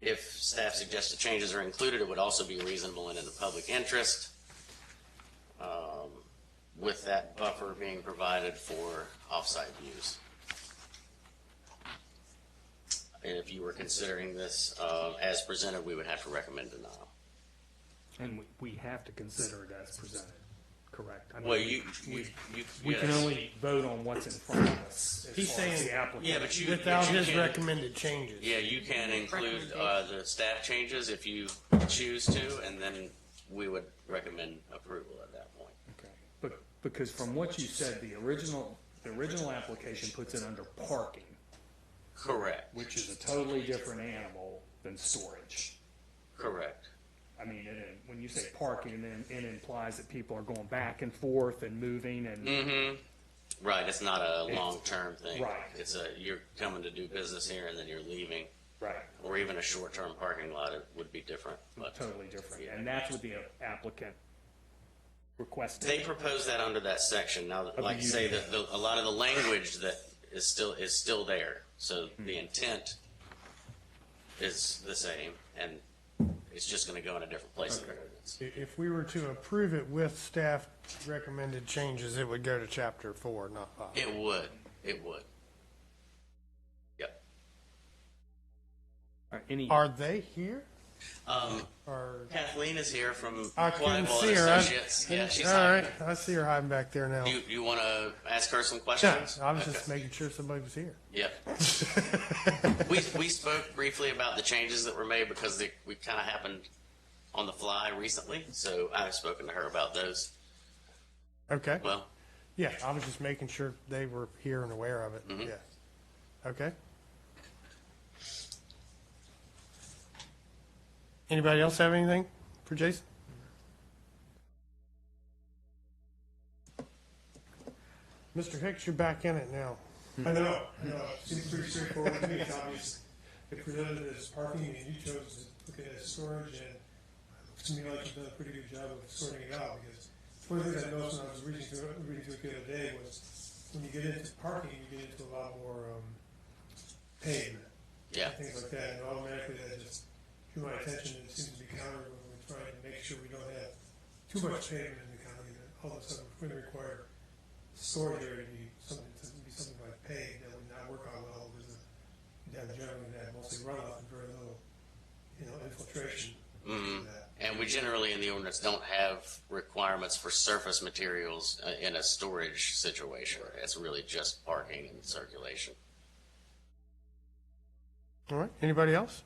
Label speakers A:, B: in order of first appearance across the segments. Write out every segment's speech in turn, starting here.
A: if staff suggested changes are included, it would also be reasonable and in the public interest. um, With that buffer being provided for offsite views. And if you were considering this, uh, as presented, we would have to recommend denial.
B: And we, we have to consider it as presented, correct? I mean,
A: Well, you,
B: We,
A: you, you.
B: we can
A: yes.
B: only vote on what's in front of us as
C: He's
B: far as
C: saying-
B: the applicant.
A: Yeah, but you. but
C: Without
A: you
C: his
A: can-
C: recommended changes.
A: Yeah, you can include, uh, the staff changes if you choose to, and then we would recommend approval at that point.
B: Okay. But, because from what you said, the original, the original application puts it under parking,
A: Correct,
B: which is a totally different animal than storage.
A: correct.
B: I mean, and, and when you say parking, then it implies that people are going back and forth and moving
A: Mm.
B: and,
A: Right, it's not a long-term thing.
B: Right.
A: It's a, you're coming to do business here and then you're leaving,
B: right,
A: or even a short-term parking lot, it would be different, but.
B: totally different.
A: Yeah.
B: And that's what the applicant requested.
A: They proposed that under that section. Now,
B: the
A: like I say,
B: UDO.
A: that the, a lot of the language that is still, is still there. So the intent is the same and it's just going to go in a different place in the ordinance.
C: I- If we were to approve it with staff recommended changes, it would go to chapter four, not five.
A: It would, it would. Yep.
B: Or any,
C: Are they here?
A: Um,
C: Or,
A: Kathleen is here from
C: I couldn't
A: Pliable
C: see
A: and
C: her. I-
A: Associates. Yeah, she's
C: all
A: on.
C: right, I see her hiding back there now.
A: Do you, you want to ask her some
C: Yeah,
A: questions?
C: I was
A: Okay.
C: just making sure somebody was here.
A: Yep. we, we spoke briefly about the changes that were made because they, we kind of happened on the fly recently. So I've spoken to her about those.
C: Okay,
A: Well,
C: yeah, I was just making sure they were here and aware of it, yeah. Okay. Anybody else have anything for Jason? Mr. Hicks, you're back in it now.
D: I know, I know, it seems pretty straightforward to me, it's obvious. It presented it as parking and you chose to look at it as storage and to me, like you've done a pretty good job of sorting it out because one of the things I noticed when I was reading through it, reading through it the other day was when you get into parking, you get into a lot more, um, pavement
A: yeah.
D: and things like that, and automatically that just drew my attention, and it seems to be counter when we're trying to make sure we don't have too much pavement in the county, that all of a sudden we're gonna require storage area to be something, to be something like paved, that would not work out well, because down generally, that mostly runoff and very little, you know, infiltration.
A: Mhm.
D: to that.
A: And we generally in the ordinance don't have requirements for surface materials uh, in a storage situation. It's really just parking and circulation.
C: All right, anybody else?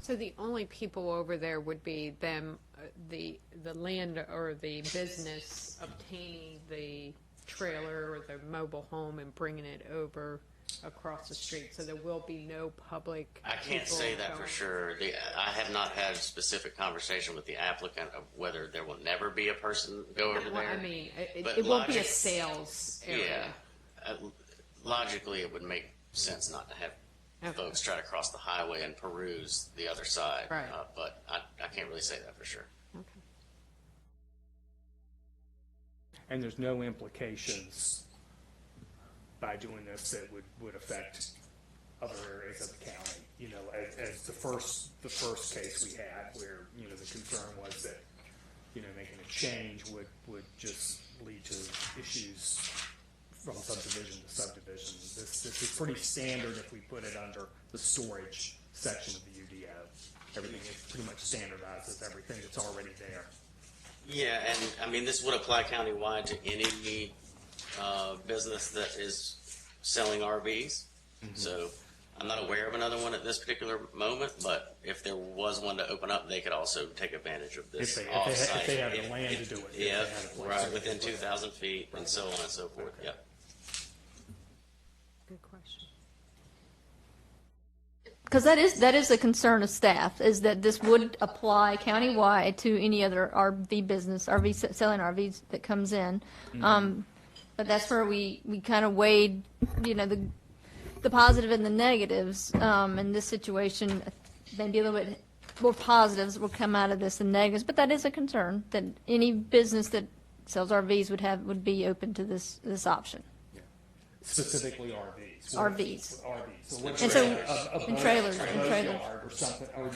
E: So the only people over there would be them, uh, the, the land or the business obtaining the trailer or the mobile home and bringing it over across the street, so there will be no public.
A: I can't
E: people
A: say that for
E: going.
A: sure. The, I have not had a specific conversation with the applicant of whether there will never be a person go over
E: Well,
A: there.
E: I mean, it,
A: But
E: it won't be a
A: logic-
E: sales
A: Yeah.
E: area.
A: Uh, Logically, it would make sense not to have
E: Okay.
A: folks try to cross the highway and peruse the other side.
E: Right.
A: Uh, But I, I can't really say that for sure.
E: Okay.
B: and there's no implications by doing this that would, would affect other areas of the county. You know, as, as the first, the first case we had where, you know, the concern was that, you know, making a change would, would just lead to issues from subdivision to subdivision. This, this is pretty standard if we put it under the storage section of the UDO. Everything is pretty much standardized as everything that's already there.
A: Yeah, and I mean, this would apply countywide to any uh, business that is selling RVs.
B: Mm-hmm.
A: So I'm not aware of another one at this particular moment, but if there was one to open up, they could also take advantage of
B: If
A: this
B: they,
A: offsite.
B: if they, if they have the
A: If-
B: land to
A: if-
B: do it. if they
A: Yeah,
B: have a place to
A: right,
B: do
A: within
B: it.
A: 2,000 feet and so on and so forth, yep.
E: Good question.
F: Because that is, that is a concern of staff, is that this would apply countywide to any other RV business, RV, s- selling RVs that comes in. Um, But that's where we, we kind of weighed, you know, the, the positive and the negatives. Um, In this situation, maybe a little bit more positives will come out of this than negatives, but that is a concern, that any business that sells RVs would have, would be open to this, this option.
B: Specifically RVs.
F: RVs.
B: RVs. So what-
F: And so,
B: a- a
F: and
B: boat-
F: trailers,
B: a
F: and
B: boat
F: trailers.
B: yard Or something, or